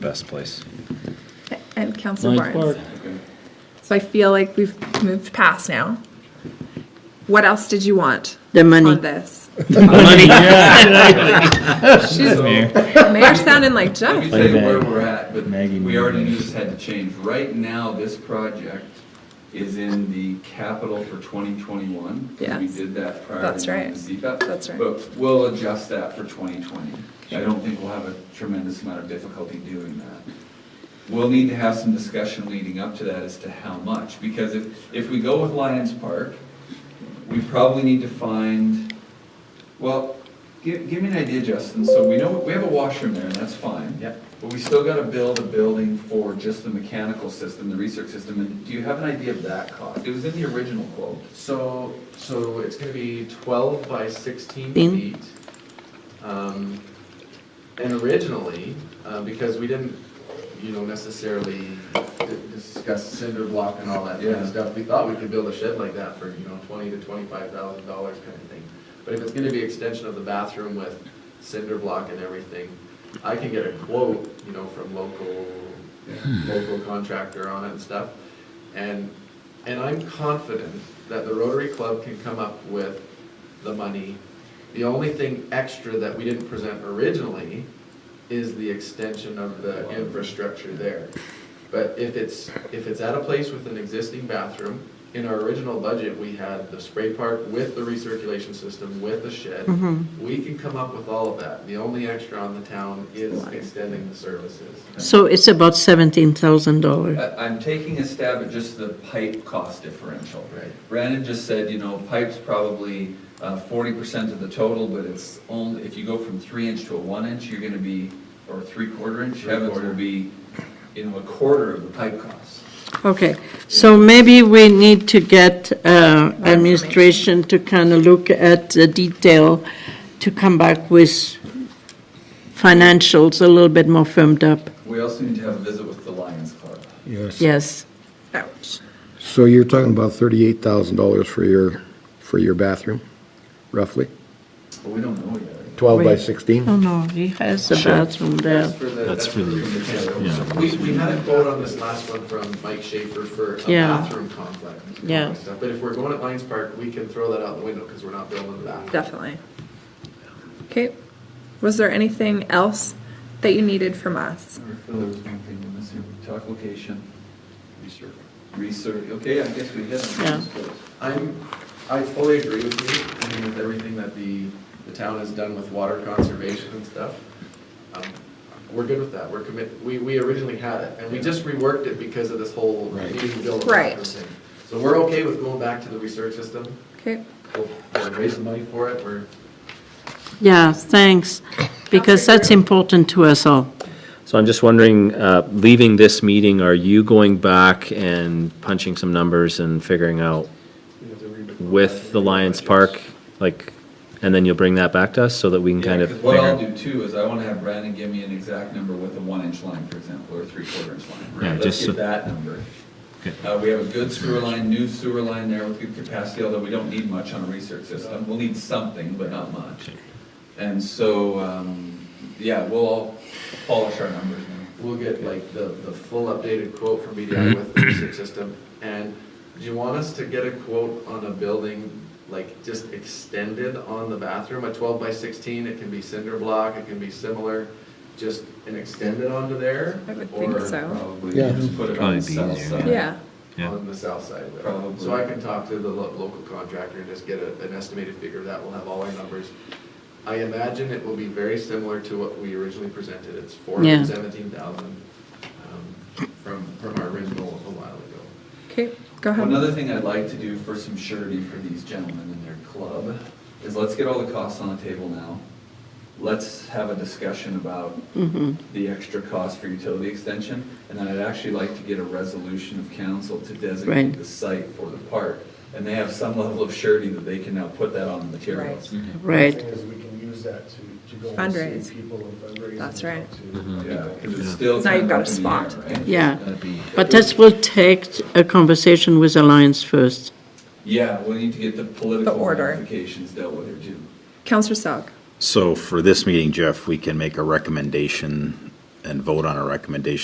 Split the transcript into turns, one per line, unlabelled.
best place.
And Council
Lions
Barnes.
Park.
So I feel like we've moved past now. What else did you want
The money.
on this?
Money, yeah.
She's, Mayor sounding like
Let
Jeff.
me
Play
tell you where
Maggie.
we're at, but
Maggie
we already
Moon.
knew this had to change. Right now, this project is in the capital for 2021. 'cause We
Yes.
did that prior.
That's
to
right.
the CPAP.
That's right.
But we'll adjust that for 2020. I don't think we'll have a tremendous amount of difficulty doing that. We'll need to have some discussion leading up to that as to how much, because if, if we go with Lions Park, we probably need to find, well, give, give me an idea, Justin, so we know, we have a washroom there, and that's fine.
Yep.
But we still gotta build a building for just the mechanical system, the research system, and do you have an idea of that cost? It was in the original quote.
So, so it's gonna be twelve by sixteen
Thin.
feet. Um, and originally, uh, because we didn't, you know, necessarily di- discuss cinder block and all that kind
Yeah.
of stuff, we thought we could build a shed like that for, you know, twenty to twenty-five thousand dollars kind of thing. But if it's gonna be extension of the bathroom with cinder block and everything, I can get a quote, you know, from local, local contractor on it and stuff. And, and I'm confident that the Rotary Club can come up with the money. The only thing extra that we didn't present originally is the extension of the infrastructure there. But if it's, if it's at a place with an existing bathroom, in our original budget, we had the spray park with the recirculation system, with the shed. We can come up with all of that. The only extra on the town is extending the services.
So it's about seventeen thousand dollars.
I- I'm taking a stab at just the pipe cost differential.
Right.
Brandon just said, you know, pipe's probably uh, forty percent of the total, but it's only, if you go from three inch to a one inch, you're gonna be, or three quarter inch, heavens
Three-quarter.
will be, you know, a quarter of the pipe cost.
Okay, so maybe we need to get uh, administration to kind of look at the detail to come back with financials a little bit more firmed up.
We also need to have a visit with the Lions Club.
Yes.
Yes,
Ouch.
So you're talking about thirty-eight thousand dollars for your, for your bathroom, roughly?
But we don't know yet.
Twelve by
Right.
sixteen?
oh no, he has a bathroom there.
for the.
That's for the, yeah.
We, we had a quote on this last one from Mike Schaefer for a
Yeah.
bathroom complex. and all that
Yeah.
stuff. But if we're going at Lions Park, we can throw that out the window because we're not building the bathroom.
Definitely. Okay. Was there anything else that you needed from us?
Or Phil, there was one thing we missed here. We talked location. Research. Research, okay, I guess we hit
Yeah.
on those.
I'm, I fully agree with you, I mean, with everything that the, the town has done with water conservation and stuff. Um, We're good with that, we're commit, we, we originally had it, and we just reworked it because of this whole
Right.
needing to build a
Right.
bathroom thing. So we're okay with going back to the research system,
Okay.
we'll, we'll raise the money for it, we're,
Yeah, thanks, because that's important to us all.
So I'm just wondering, uh, leaving this meeting, are you going back and punching some numbers and figuring out
we have to re-
with the Lions Park, like, and then you'll bring that back to us so that we can
Yeah,
kind of
'cause What I'll
figure?
do too is I want to have Brandon give me an exact number with a one inch line, for example, or three quarter inch
Yeah,
line.
just
Let's
so-
get that number.
Okay.
Uh, we have a good sewer line, new sewer line there with good capacity, although we don't need much on a research system. We'll need something, but not much. And so, um, yeah, we'll all polish our numbers now.
We'll get like the, the full updated quote from BDI with the research system. And do you want us to get a quote on a building, like just extended on the bathroom, a twelve by sixteen? It can be cinder block, it can be similar, just an extended onto there?
I would think
or
so.
Probably
Yeah.
just put it on the
Probably be
south
easier.
side.
Oh. Yeah.
Yeah.
On the south side of it.
Probably.
So I can talk to the lo- local contractor and just get a- an estimated figure of that. We'll have all our numbers. I imagine it will be very similar to what we originally presented. It's four hundred
Yeah.
and seventeen thousand um, from, from our original a while ago.
Okay. Go ahead.
Another thing I'd like to do for some surety for these gentlemen and their club is let's get all the costs on the table now. Let's have a discussion about
Mm-hmm.
the extra cost for utility extension. And then I'd actually like to get a resolution of council to designate
Right.
the site for the park. And they have some level of surety that they can now put that on the materials.
Right.
thing is we can use that to, to go and
Fundraise.
see people and fundraise.
That's
and
right.
talk to-
Yeah, 'cause it's still.
Now
kind
you've
of
got a
up in the air,
spot.
right?
Yeah.
That'd be-
But this will take a conversation with Alliance first.
Yeah, we need to get the political
order.
ramifications dealt with here too.
Counselor Sog.
So for this meeting, Jeff, we can make a recommendation
and vote on a recommendation